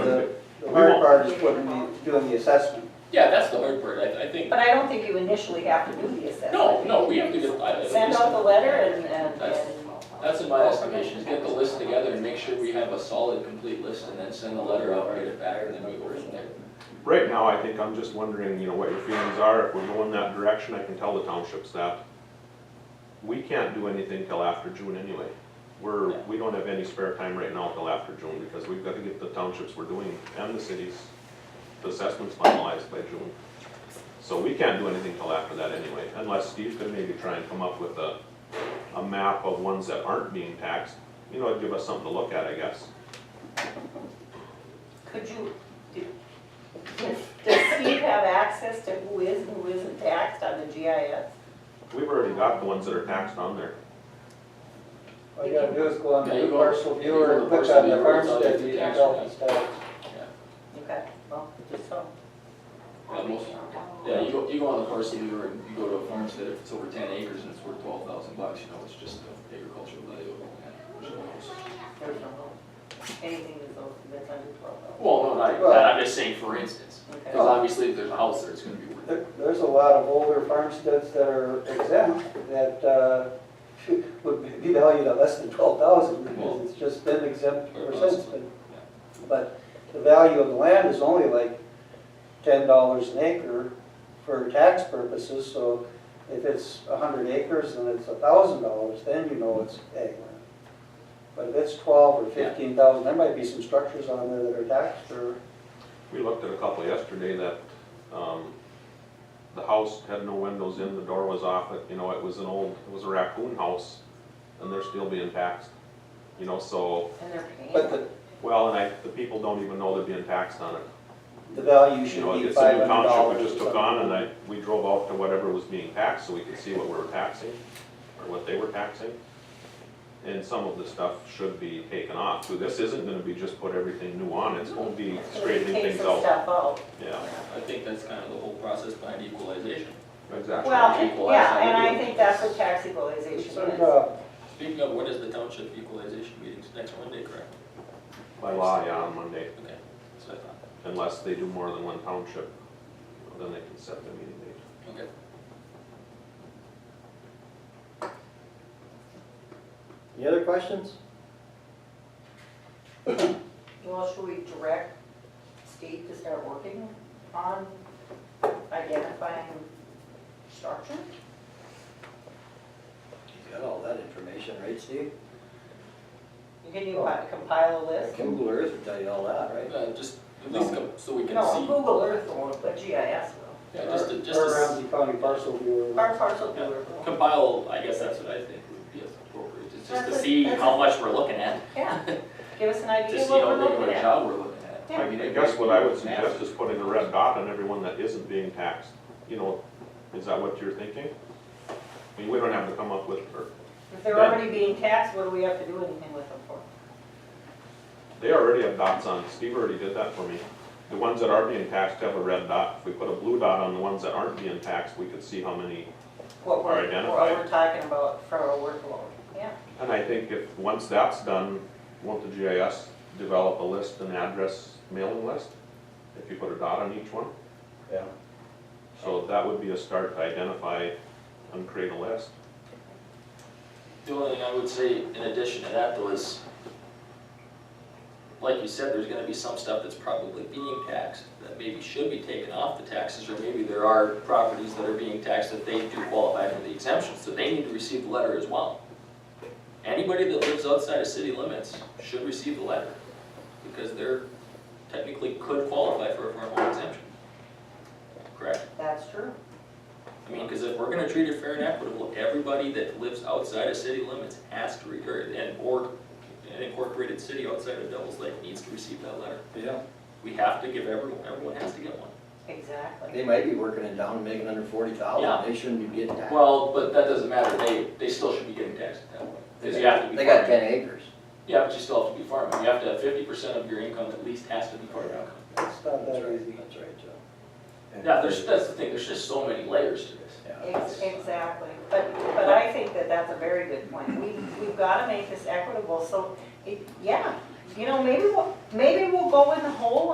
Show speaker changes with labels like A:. A: part is putting the, doing the assessment.
B: Yeah, that's the hard part, I, I think,
C: But I don't think you initially have to do the assessment.
B: no, no, we have to get, I, at
C: Send
B: least-
C: out the letter and, and,
B: That's-
C: and.
B: that's in my estimation, is get the list together and make sure we have a solid, complete list, and then send a letter out, get it back, and then we go from there.
D: Right now, I think I'm just wondering, you know, what your feelings are, if we're going that direction, I can tell the townships that we can't do anything till after June anyway. We're, we don't have any spare time right now till after June, because we've got to get the townships we're doing and the cities, the assessments finalized by June. So we can't do anything till after that anyway, unless Steve could maybe try and come up with a, a map of ones that aren't being taxed, you know, it'd give us something to look at, I guess.
C: Could you, do- does does Steve have access to who is and who isn't taxed on the GIS?
D: We've already got the ones that are taxed on there.
A: All you gotta do is go on
B: Yeah,
A: the
B: you go-
A: parcel
B: you go to
A: viewer and
B: the
A: click
B: parcel
A: on the
B: viewer, it's
A: farmstead,
B: all the
A: you can
B: tax
A: tell
B: records.
A: it's taxed.
C: Okay, well, just so.
B: Yeah, most- Yeah, you go, you go on the parcel viewer and you go to a farmstead, if it's over ten acres and it's worth twelve thousand bucks, you know, it's just the agricultural value of the land. which is nice.
C: There's no hope. Anything that's over, that's under twelve though.
B: Well, no, not even that, I'm just saying for instance,
C: Okay.
B: because obviously if there's a house there, it's gonna be worth
A: There, there's a lot of older farmsteads that are exempt that, uh, would be valued at less than twelve thousand because it's just been exempt ever since then. But the value of the land is only like ten dollars an acre for tax purposes, so if it's a hundred acres and it's a thousand dollars, then you know it's ag land. But if it's twelve or fifteen thousand, there might be some structures on there that are taxed or,
D: We looked at a couple yesterday that, um, the house had no windows in, the door was off, it, you know, it was an old, it was a raccoon house, and they're still being taxed. You know, so,
C: And they're paying.
A: but the,
D: well, and I, the people don't even know they're being taxed on it.
A: the value
D: You
A: should
D: know,
A: be
D: it's a
A: five
D: new
A: hundred
D: township
A: dollars.
D: we just took on, and I, we drove out to whatever was being taxed, so we could see what we were taxing, or what they were taxing. And some of the stuff should be taken off, too. This isn't gonna be just put everything new on, it's gonna be straightening
C: Take
D: things
C: some
D: out.
C: stuff out.
D: Yeah,
B: I think that's kind of the whole process behind equalization.
D: exactly.
C: Well,
B: Equalize how
C: yeah,
B: we
C: and
B: do
C: I
B: it.
C: think that's what tax equalization
A: It's
C: is.
A: sort of, uh,
B: Speaking of, when is the township equalization meetings, next Monday, correct?
D: By law, yeah, on Monday,
B: Okay, that's what I thought,
D: unless they do more than one township, then they can set the meeting date.
B: okay.
E: Any other questions?
C: Well, should we direct Steve to start working on identifying structure?
E: He's got all that information, right, Steve?
C: You can even compile a list?
E: Google Earth will tell you all that, right?
B: Uh, just, at least come- so we can see.
C: No, Google Earth won't, but GIS will.
B: Yeah, just to, just to
A: Or
B: s-
A: Ramsey County parcel viewer.
C: Our parcel
B: Yeah.
C: viewer will.
B: compile, I guess that's what I think would be appropriate, is just
C: That's
B: to
C: what-
B: see
C: that's
B: how
C: what-
B: much we're looking at,
C: Yeah, give us an
B: to see
C: idea of what
B: how
C: we're
B: big of
C: looking
B: a
C: at.
B: job we're looking at.
C: Yeah.
B: mean,
D: I
B: it
D: guess
B: might
D: what
B: be
D: I would
B: massive.
D: suggest is putting a red dot on everyone that isn't being taxed, you know, is that what you're thinking? I mean, we don't have to come up with, or,
C: If they're
D: That-
C: already being taxed, what do we have to do anything with them for?
D: they already have dots on, Steve already did that for me. The ones that are being taxed have a red dot, if we put a blue dot on the ones that aren't being taxed, we could see how many
C: What
D: Or
C: we're, what
D: identify.
C: we're talking about for our workload, yeah.
D: And I think if, once that's done, won't the GIS develop a list, an address mailing list? If you put a dot on each one?
E: Yeah.
D: So that would be a start to identify and create a list.
B: The only thing I would say in addition to that though is, like you said, there's gonna be some stuff that's probably being taxed that maybe should be taken off the taxes, or maybe there are properties that are being taxed that they do qualify for the exemption, so they need to receive the letter as well. Anybody that lives outside of city limits should receive the letter, because they're technically could qualify for a formal exemption. Correct?
C: That's true.
B: I mean, because if we're gonna treat it fair and equitable, everybody that lives outside of city limits has to, re- or, and, or an incorporated city outside of Devil's Lake needs to receive that letter.
E: Yeah.
B: We have to give everyone, everyone has to get one.
E: They
C: Exactly.
E: might be working in town, making under forty
B: Yeah.
E: thousand, they shouldn't be getting taxed.
B: Well, but that doesn't matter, they, they still should be getting taxed at that point, because you have to be.
E: They got
B: farming.
E: ten acres.
B: Yeah, but you still have to be farming, you have to have fifty percent of your income at least has to be farm income.
A: It's
E: That's
A: not that easy.
E: right, that's right, Joe.
B: Yeah, there's, that's the thing, there's just so many layers to this.
C: Ex- Exactly, but, but I think that that's a very good point. We, we've got to make this equitable, so, it- yeah, you know, maybe we'll, maybe we'll go in the hole